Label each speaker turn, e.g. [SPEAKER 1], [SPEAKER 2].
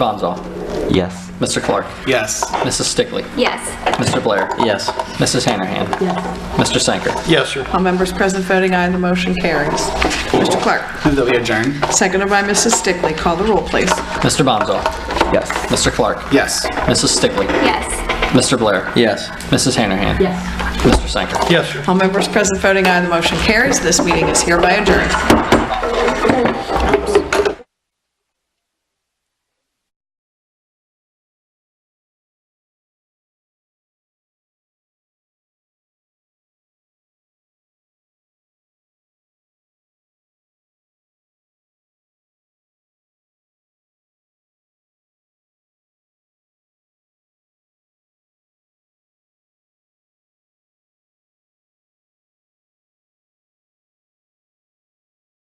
[SPEAKER 1] Bonzo.
[SPEAKER 2] Yes.
[SPEAKER 1] Mr. Clark.
[SPEAKER 3] Yes.
[SPEAKER 1] Mrs. Stickley.
[SPEAKER 4] Yes.
[SPEAKER 1] Mr. Blair.
[SPEAKER 2] Yes.
[SPEAKER 1] Mrs. Hanahan.
[SPEAKER 5] Yes.
[SPEAKER 1] Mr. Sanker.
[SPEAKER 3] Yes, sir.
[SPEAKER 5] All members present voting aye, the motion carries. Mr. Clark,
[SPEAKER 3] Move that we adjourn.
[SPEAKER 5] seconded by Mrs. Stickley. Call the roll, please.
[SPEAKER 1] Mr. Bonzo.
[SPEAKER 2] Yes.
[SPEAKER 1] Mr. Clark.
[SPEAKER 3] Yes.
[SPEAKER 1] Mrs. Stickley.
[SPEAKER 4] Yes.
[SPEAKER 1] Mr. Blair.
[SPEAKER 2] Yes.
[SPEAKER 1] Mrs. Hanahan.
[SPEAKER 5] Yes.
[SPEAKER 1] Mr. Sanker.
[SPEAKER 3] Yes, sir.
[SPEAKER 5] All members present voting aye, the motion carries. This meeting is hereby adjourned.